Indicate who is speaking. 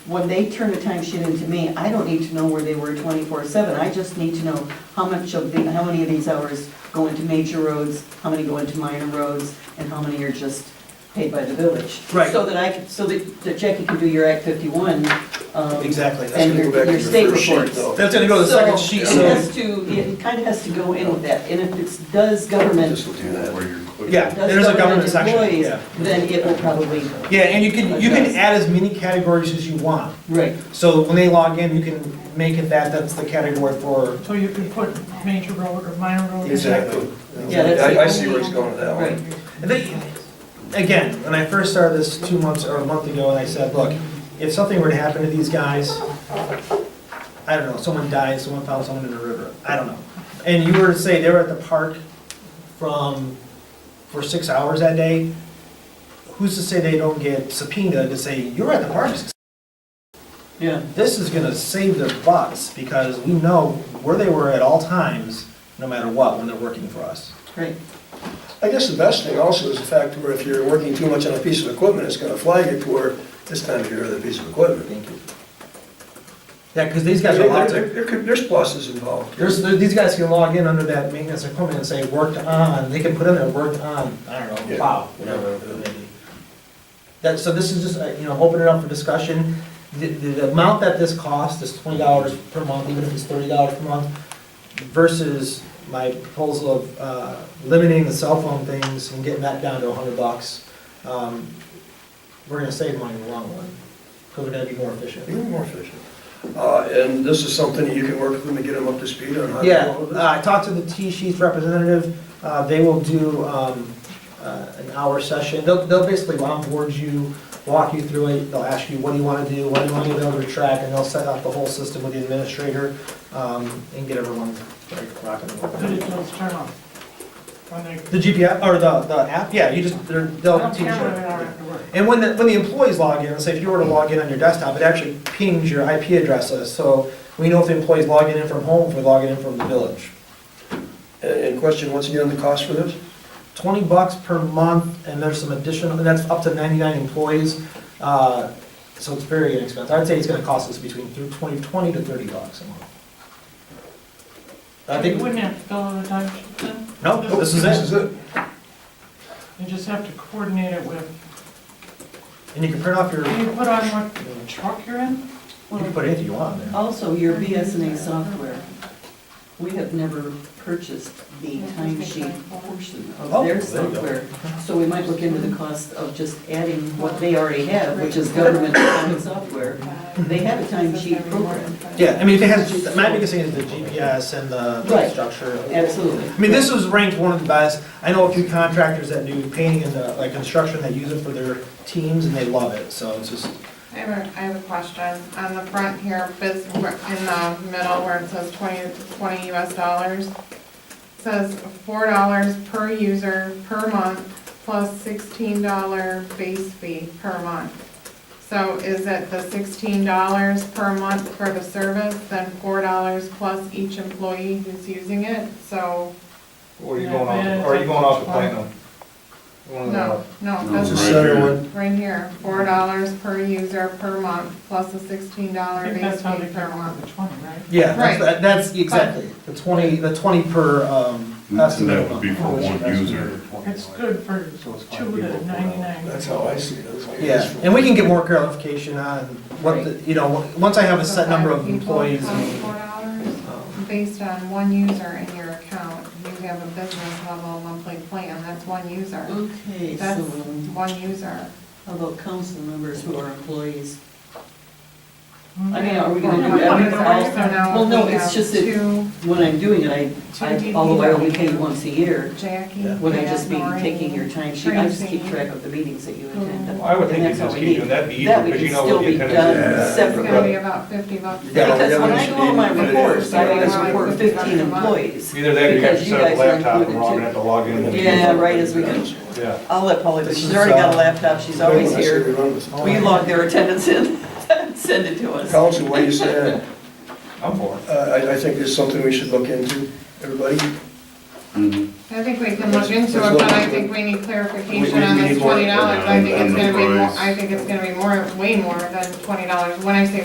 Speaker 1: when they turn a timesheet into me, I don't need to know where they were twenty-four seven. I just need to know how much of the, how many of these hours go into major roads, how many go into minor roads, and how many are just paid by the village.
Speaker 2: Right.
Speaker 1: So that I can, so that that Jackie can do your Act fifty-one. um,
Speaker 2: Exactly. That's
Speaker 1: And
Speaker 2: gonna
Speaker 1: your,
Speaker 2: go back to
Speaker 1: your
Speaker 2: your
Speaker 1: state
Speaker 2: first sheet,
Speaker 1: reports.
Speaker 2: though. That's gonna go to the second sheet,
Speaker 1: So
Speaker 2: so-
Speaker 1: it has to, it kind of has to go in with that, and if it does government,
Speaker 3: This will do that where you're.
Speaker 2: Yeah.
Speaker 1: does
Speaker 2: there's a
Speaker 1: government
Speaker 2: government section,
Speaker 1: employees,
Speaker 2: yeah.
Speaker 1: then it will probably go.
Speaker 2: Yeah, and you can, you can add as many categories as you want.
Speaker 1: Right,
Speaker 2: So when they log in, you can make it that, that's the category for.
Speaker 4: So you could put major road or minor road. in there.
Speaker 2: Exactly.
Speaker 1: Yeah, that's
Speaker 3: I, I
Speaker 1: the
Speaker 3: see where he's going with that
Speaker 1: right.
Speaker 3: one.
Speaker 2: And they, again, when I first started this two months or a month ago, and I said, look, if something were to happen to these guys, I don't know, someone dies, someone found someone in the river, I don't know. And you were to say they were at the park from, for six hours that day, who's to say they don't get subpoenaed to say, you were at the park six
Speaker 1: Yeah,
Speaker 2: this is gonna save their butts, because we know where they were at all times, no matter what, when they're working for us.
Speaker 1: right.
Speaker 5: I guess the best thing also is the fact where if you're working too much on a piece of equipment, it's gonna flag it to where this time of year, the piece of equipment.
Speaker 2: Thank you. Yeah, because these guys are allowed
Speaker 5: There-
Speaker 2: to,
Speaker 5: there could- There's pluses involved.
Speaker 2: there's, there- these guys can log in under that maintenance equipment and say, worked on, they can put in there, worked on, I don't know,
Speaker 3: Yeah.
Speaker 2: plow, whatever it may be. That, so this is just, uh, you know, open it up for discussion. The, the the amount that this costs is twenty dollars per month, even if it's thirty dollars per month, versus my proposal of uh, limiting the cell phone things and getting that down to a hundred bucks. Um, We're gonna save money in the long run, because we're gonna be more efficient.
Speaker 5: You're more efficient. Uh, and this is something that you can work with them to get them up to speed on how to do
Speaker 2: Yeah,
Speaker 5: all of
Speaker 2: uh,
Speaker 5: this?
Speaker 2: I talked to the T-Sheets representative, Uh, they will do um, uh, an hour session, they'll, they'll basically onboard you, walk you through it, they'll ask you, what do you want to do, what do you want to be able to track, and they'll set up the whole system with the administrator um, and get everyone like, rocking and
Speaker 4: But it
Speaker 2: rolling.
Speaker 4: does turn on. When they,
Speaker 2: The GPS, or the, the app, yeah, you just, they're-
Speaker 4: I
Speaker 2: they'll
Speaker 4: don't
Speaker 2: teach you.
Speaker 4: care whether they are after work.
Speaker 2: And when the, when the employees log in, say if you were to log in on your desktop, it actually pings your IP address list, so we know if the employee's logging in from home, if they're logging in from the village.
Speaker 5: And, and question, once again, the cost for this?
Speaker 2: 20 bucks per month, and there's some additional, and that's up to 99 employees. uh, So it's very inexpensive. I'd say it's gonna cost us between through 20, 20 to 30 bucks a month. I
Speaker 4: You
Speaker 2: think,
Speaker 4: wouldn't have to fill out a timesheet then?
Speaker 2: no, this is
Speaker 5: This
Speaker 2: it.
Speaker 5: is it.
Speaker 4: You just have to coordinate it with,
Speaker 2: And you can print off your,
Speaker 4: do
Speaker 2: you
Speaker 4: you put on what truck you're in?
Speaker 2: can put anything you want in there.
Speaker 1: Also, your BSNA software, we have never purchased the timesheet portion of
Speaker 2: Oh, there
Speaker 1: their
Speaker 2: you go.
Speaker 1: software. So we might look into the cost of just adding what they already have, which is government accounting software. They have a timesheet program,
Speaker 2: Yeah, I mean, if it has, my biggest thing is the GPS and the- the
Speaker 1: Right.
Speaker 2: structure.
Speaker 1: absolutely.
Speaker 2: I mean, this was ranked one of the best. I know a few contractors that do painting and uh, like construction that use it for their teams, and they love it, so it's just,
Speaker 6: I have a, I have a question. On the front here, biz, in the middle where it says 20 20 US dollars, it says four dollars per user per month plus sixteen dollar base fee per month. So is it the sixteen dollars per month for the service, then four dollars plus each employee who's using it? So,
Speaker 7: Or are you going off, or are you going off the platinum?
Speaker 5: Oh,
Speaker 7: One of
Speaker 6: no,
Speaker 7: the-
Speaker 6: no,
Speaker 3: No,
Speaker 6: that's
Speaker 5: It's a center
Speaker 3: here.
Speaker 5: one.
Speaker 6: Right here, four dollars per user per month, plus a sixteen
Speaker 4: I
Speaker 6: dollar
Speaker 4: think
Speaker 6: base
Speaker 4: that's how
Speaker 6: fee
Speaker 4: they
Speaker 6: per
Speaker 4: care about
Speaker 6: month.
Speaker 4: the twenty, right?
Speaker 2: Yeah,
Speaker 6: Right.
Speaker 2: that's, that's exactly, the twenty, the twenty per, um,
Speaker 3: And
Speaker 2: that's the
Speaker 3: that would be
Speaker 2: minimum.
Speaker 3: for one user.
Speaker 4: It's good for two to ninety-nine.
Speaker 5: That's how I see it. It's like
Speaker 2: Yeah,
Speaker 5: this.
Speaker 2: and we can get more clarification on what, the you know, once I have a set number of
Speaker 6: Five people
Speaker 2: employees.
Speaker 6: times Four dollars,
Speaker 2: um,
Speaker 6: based on one user in your account, you have a business level monthly plan, that's one user.
Speaker 1: Okay,
Speaker 6: That's
Speaker 1: so
Speaker 6: one user.
Speaker 1: how about council members who are employees? I
Speaker 4: I
Speaker 1: mean, are we
Speaker 6: Well,
Speaker 1: gonna do
Speaker 6: one
Speaker 1: that?
Speaker 6: user, so now
Speaker 1: Well, no,
Speaker 6: we
Speaker 1: it's
Speaker 6: have
Speaker 1: just that-
Speaker 6: Two,
Speaker 1: When I'm doing it, I, I, although I only pay once a year,
Speaker 6: Jackie,
Speaker 1: would I just
Speaker 6: Jan,
Speaker 1: be
Speaker 6: Maureen,
Speaker 1: taking your timesheet? I just keep
Speaker 6: Tracy.
Speaker 1: track of the meetings that you attend.
Speaker 7: Well, I would think
Speaker 1: And
Speaker 7: you
Speaker 1: that's how
Speaker 7: just
Speaker 1: we
Speaker 7: keep
Speaker 1: need-
Speaker 7: doing that, be easier,
Speaker 1: That we
Speaker 7: 'cause
Speaker 1: could
Speaker 7: you know what
Speaker 1: still
Speaker 7: the
Speaker 1: be
Speaker 7: attendance
Speaker 1: done
Speaker 5: is.
Speaker 6: It's gonna be
Speaker 1: separately.
Speaker 6: about fifty bucks.
Speaker 5: Yeah.
Speaker 1: Because when I go on my reports, I always report fifteen employees.
Speaker 7: Either that or you have to
Speaker 1: Because
Speaker 7: set up a
Speaker 1: guys are
Speaker 7: laptop and
Speaker 1: included
Speaker 7: we're all
Speaker 1: too.
Speaker 7: gonna have to log in. and-
Speaker 1: Yeah, right, as we go.
Speaker 7: Yeah.
Speaker 1: I'll let Polly, but
Speaker 2: This
Speaker 1: she's
Speaker 2: is,
Speaker 1: already got a
Speaker 2: uh,
Speaker 1: laptop, she's always here. We
Speaker 2: Oh.
Speaker 1: log their attendance in, send it to us.
Speaker 5: Council, what do you say?
Speaker 7: I'm for it.
Speaker 5: Uh, I, I think it's something we should look into, everybody.
Speaker 3: Mhm.
Speaker 6: As I think we can look into it, but I think we need clarification on
Speaker 7: We- we- we
Speaker 6: this
Speaker 7: need more-
Speaker 6: twenty dollars. I think it's
Speaker 3: And the
Speaker 6: gonna be more,
Speaker 3: price.
Speaker 6: I think it's gonna be more, way more than twenty dollars. When I say